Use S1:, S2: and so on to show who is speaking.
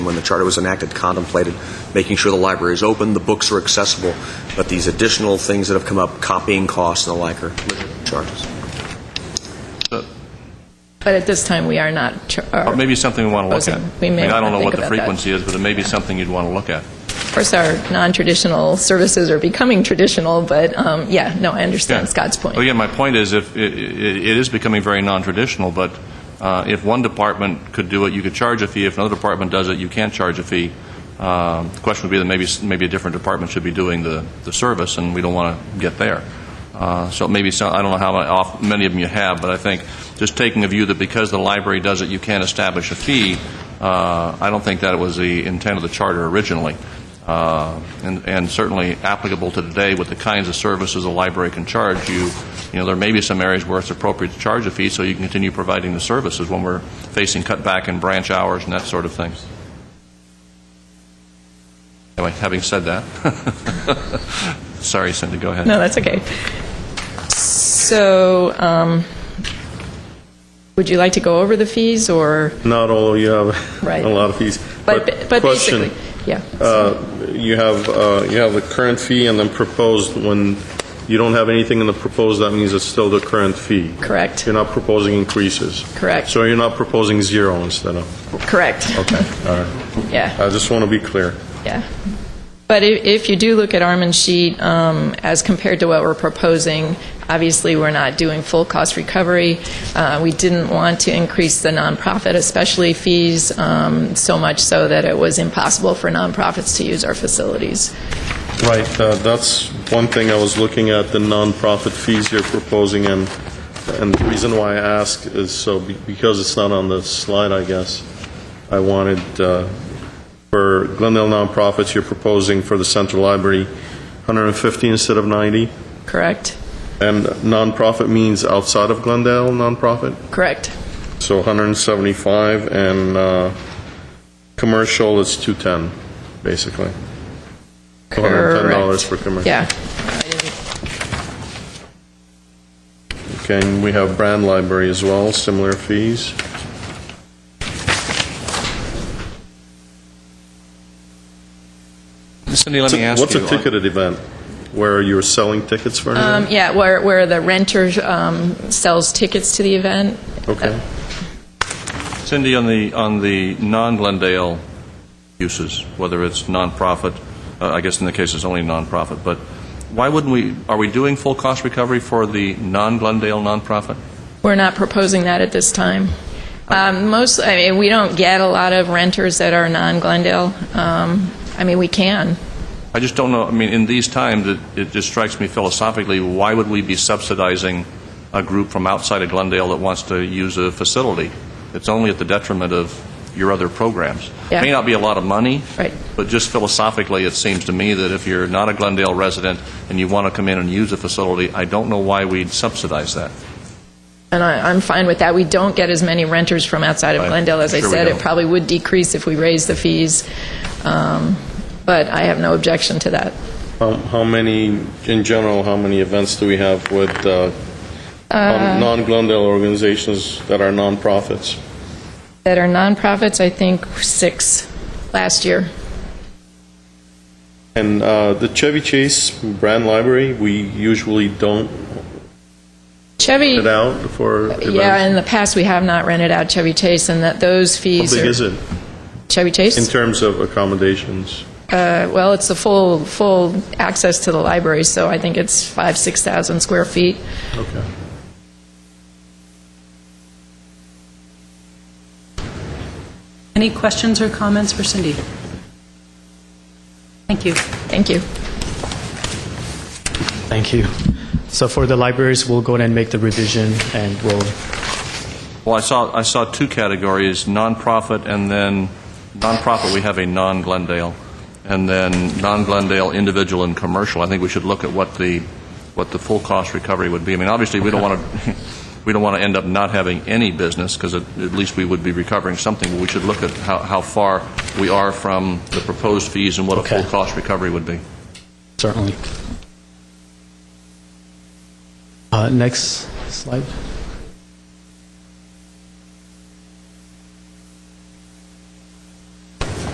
S1: when the charter was enacted contemplated making sure the library is open, the books are accessible, but these additional things that have come up, copying costs and the like, are charges.
S2: But at this time, we are not. uh, ch-
S3: Or maybe something we want to look
S2: proposing.
S3: at.
S2: We may
S3: I mean, I don't
S2: wanna
S3: know what
S2: think
S3: the
S2: about that.
S3: frequency is, but it may be something you'd want to look at.
S2: Of course, our non-traditional services are becoming traditional, but um, yeah, no, I
S3: Yeah.
S2: understand Scott's point.
S3: Well, Again, my point is, if, i- i- it is becoming very non-traditional, but uh, if one department could do it, you could charge a fee. If another department does it, you can't charge a fee. Um, The question would be that maybe, s- maybe a different department should be doing the, the service, and we don't want to get there. Uh, So maybe, some- I don't know how many off- many of them you have, but I think just taking a view that because the library does it, you can't establish a fee, uh, I don't think that was the intent of the charter originally uh, and and certainly applicable to today with the kinds of services a library can charge you, you know, there may be some areas where it's appropriate to charge a fee so you can continue providing the services when we're facing cutback in branch hours and that sort of thing. Anyway, having said that, sorry, Cindy, go ahead.
S2: No, that's okay. So, um, would you like to go over the fees, or,
S4: Not all, you have
S2: Right.
S4: a lot of fees.
S2: but but
S4: question,
S2: basically, yeah.
S4: uh, You have, uh, you have the current fee and then proposed, when you don't have anything in the proposed, that means it's still the current fee.
S2: Correct.
S4: You're not proposing increases.
S2: Correct.
S4: So you're not proposing zero instead of,
S2: Correct.
S4: okay, all right.
S2: Yeah.
S4: I just want to be clear.
S2: Yeah. But i- if you do look at Armin's sheet, um, as compared to what we're proposing, obviously, we're not doing full cost recovery. Uh, We didn't want to increase the nonprofit, especially fees, um, so much so that it was impossible for nonprofits to use our facilities.
S4: Right, uh, that's one thing I was looking at, the nonprofit fees you're proposing, and, and the reason why I ask is so, be- because it's not on the slide, I guess, I wanted, uh, for Glendale nonprofits, you're proposing for the Central Library, 150 instead of 90,
S2: Correct?
S4: and nonprofit means outside of Glendale nonprofit?
S2: Correct.
S4: So 175, and uh, commercial is 210, basically. $210
S2: Correct.
S4: for commercial.
S2: Yeah.
S4: Okay, and we have Brand Library as well, similar fees.
S3: Cindy, let me ask you. uh,
S4: What's a ticketed event? Where you're selling tickets for an
S2: Um,
S4: event?
S2: Yeah, where where the renter um, sells tickets to the event.
S4: Okay.
S3: Cindy, on the, on the non-Glendale uses, whether it's nonprofit, uh, I guess in the case it's only nonprofit, but why wouldn't we, are we doing full cost recovery for the non-Glendale nonprofit?
S2: We're not proposing that at this time. Um, Most, I mean, we don't get a lot of renters that are non-Glendale. Um, I mean, we can.
S3: I just don't know, I mean, in these times, it, it just strikes me philosophically, why would we be subsidizing a group from outside of Glendale that wants to use a facility? It's only at the detriment of your other programs.
S2: Yeah.
S3: May not be a lot of money.
S2: Right.
S3: But just philosophically, it seems to me that if you're not a Glendale resident and you want to come in and use a facility, I don't know why we'd subsidize that.
S2: And I- I'm fine with that. We don't get as many renters from outside of
S3: Right.
S2: Glendale. As I
S3: Sure we
S2: said, it
S3: don't.
S2: probably would decrease if we raise the fees, Um, but I have no objection to that.
S4: How how many, in general, how many events do we have with uh,
S2: Uh.
S4: non- non-Glendale organizations that are nonprofits?
S2: That are nonprofits, I think six last year.
S4: And uh, the Chevy Chase Brand Library, we usually don't
S2: Chevy,
S4: put out for events.
S2: yeah, in the past, we have not rented out Chevy Chase, and that those
S4: How
S2: fees are...
S4: big is it
S2: Chevy Chase?
S4: in terms of accommodations?
S2: Uh, Well, it's the full, full access to the library, so I think it's five, 6,000 square feet.
S4: Okay.
S5: Any questions or comments for Cindy? Thank you.
S2: Thank you.
S6: Thank you. So for the libraries, we'll go ahead and make the revision, and we'll,
S3: Well, I saw, I saw two categories, nonprofit and then, nonprofit, we have a non-Glendale, and then non-Glendale, individual and commercial. I think we should look at what the, what the full cost recovery would be. I mean, obviously, we don't want to, we don't want to end up not having any business, because at, at least we would be recovering something, but we should look at how, how far we are from the proposed fees and what a full
S6: Okay.
S3: cost recovery would be.
S6: certainly. Uh, Next slide.